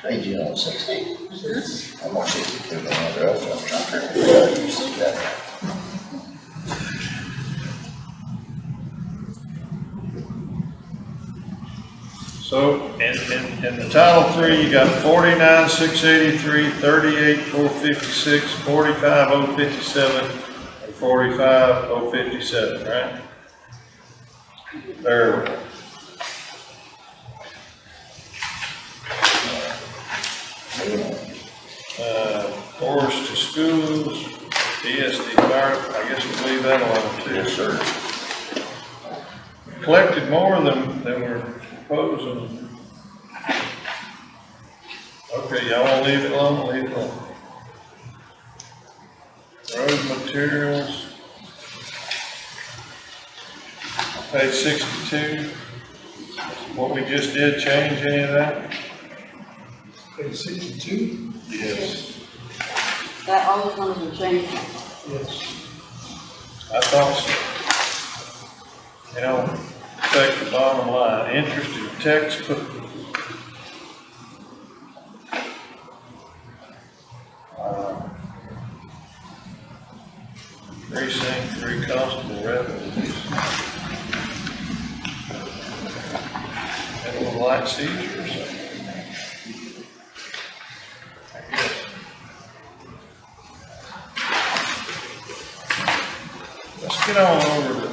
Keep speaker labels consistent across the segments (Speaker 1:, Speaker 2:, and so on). Speaker 1: Hey, June on sixteen. I'm gonna see if there's another up, I'm trying to figure out if you see that.
Speaker 2: So, in, in, in the Title Three, you got forty-nine, six eighty-three, thirty-eight, four fifty-six, forty-five, oh fifty-seven, and forty-five, oh fifty-seven, right? There. Uh, Forest to Schools, ESD Fire, I guess we'll leave that alone too.
Speaker 1: Yes, sir.
Speaker 2: collected more than, than we're proposing. Okay, y'all wanna leave it alone, leave it alone. Road materials. Page sixty-two, what we just did, change any of that?
Speaker 3: Page sixty-two?
Speaker 2: Yes.
Speaker 4: That all is going to change.
Speaker 3: Yes.
Speaker 2: I thought so. You know, take the bottom line, interest in textbook, uh, precinct, three constable revenues. That little light seizure or something. I guess. Let's get on over to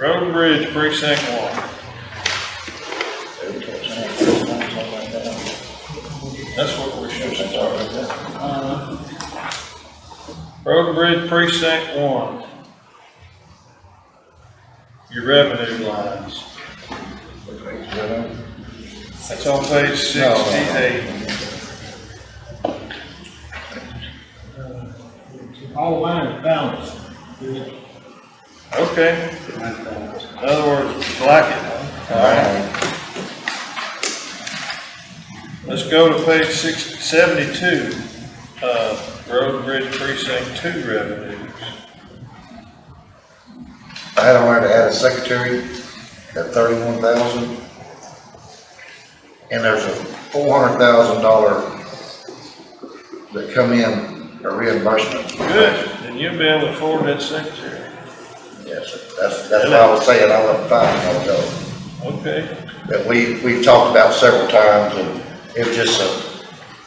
Speaker 2: Road and Bridge Precinct One. That's what we should start with. Uh-huh. Road and Bridge Precinct One. Your revenue lines. That's on page sixty-eight.
Speaker 3: Uh, All lines balanced. Yeah.
Speaker 2: Okay. In other words, like it. All right. Let's go to page six, seventy-two, uh, Road and Bridge Precinct Two revenues.
Speaker 1: I had a right to add a secretary at thirty-one thousand. And there's a four hundred thousand dollar that come in, a reimbursement.
Speaker 2: Good, then you'll be able to afford that secretary.
Speaker 1: Yes, sir. that's, that's what I was saying, I left five, I'll go.
Speaker 2: Okay,
Speaker 1: that we, we've talked about several times, and it was just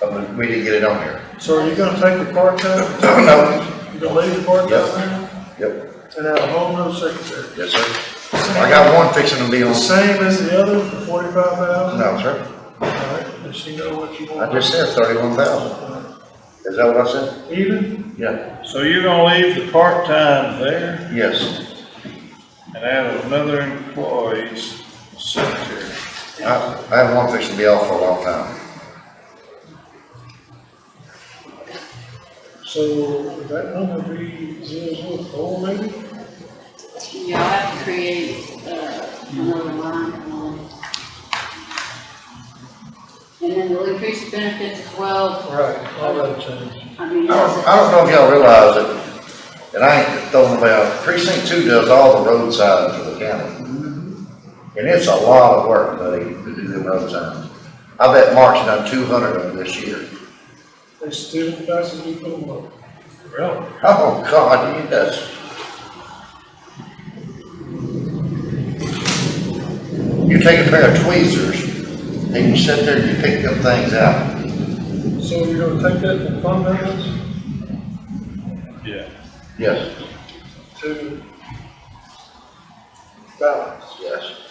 Speaker 1: a, a- we didn't get it on here.
Speaker 3: So are you gonna take the part-time,
Speaker 1: No,
Speaker 3: you gonna leave the part-time
Speaker 1: yep,
Speaker 3: there and have a whole nother secretary?
Speaker 1: yes, sir. I got one fixing to be on,
Speaker 3: Same as the other, forty-five thousand?
Speaker 1: no, sir,
Speaker 3: All right, does she know what you
Speaker 1: I
Speaker 3: want?
Speaker 1: just said thirty-one thousand, is that what I said?
Speaker 3: Even?
Speaker 1: Yeah.
Speaker 2: so you're gonna leave the part-time there
Speaker 1: Yes,
Speaker 2: and add another employee's secretary.
Speaker 1: I, I had one fixing to be off for a long time,
Speaker 3: So would that number be zero zero four maybe?
Speaker 4: Y'all have to create, uh, another line. um, And then we'll increase the benefits as well,
Speaker 3: Right, all that changed.
Speaker 4: I mean,
Speaker 1: I
Speaker 4: that's
Speaker 1: don't,
Speaker 4: a-
Speaker 1: I don't know if y'all realize it, and I ain't throwing away, precinct two does all the road signs for the county. And it's a lot of work, buddy, to do the road signs. I bet Mark's done two hundred of them this year.
Speaker 3: They still, that's what we put them up.
Speaker 2: Really?
Speaker 1: Oh, God, he does. You take a pair of tweezers, and you sit there and you pick them things out.
Speaker 3: So you're gonna take that from fund balance
Speaker 2: Yeah.
Speaker 1: Yes.
Speaker 3: to balance?
Speaker 1: Yes.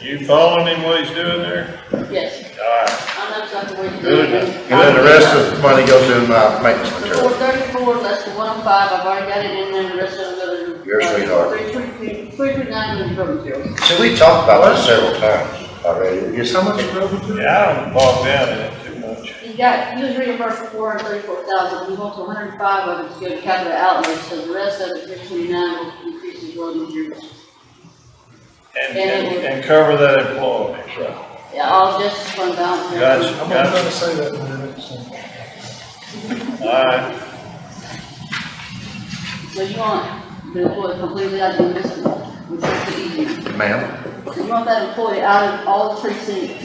Speaker 2: You following him what he's doing there?
Speaker 4: yes,
Speaker 2: All right,
Speaker 4: I know that's the way to do
Speaker 2: Good.
Speaker 4: it.
Speaker 1: And then the rest of the money goes in my maintenance
Speaker 4: Four
Speaker 1: material.
Speaker 4: thirty-four, that's the one oh five, I've already got it in there, the rest of it goes.
Speaker 1: Your sweetheart.
Speaker 4: Three twenty, three twenty-nine is road materials.
Speaker 1: See, we talked about this several times already. Just how much?
Speaker 3: road material?
Speaker 2: yeah, I don't bog down in it too much.
Speaker 4: You got, you was reimbursed for four hundred thirty-four thousand, you want to hundred and five of it to go to capital outlay, so the rest of it, three twenty-nine, will increase as road materials.
Speaker 2: And, and, and cover that employee. Right.
Speaker 4: Yeah, all just fund balance.
Speaker 2: Gotcha,
Speaker 3: I'm not
Speaker 2: gotcha.
Speaker 3: gonna say that in a minute, so.
Speaker 2: All right,
Speaker 4: So you want the employee completely out of the system, which is the easy.
Speaker 1: Ma'am?
Speaker 4: You want that employee out of all precincts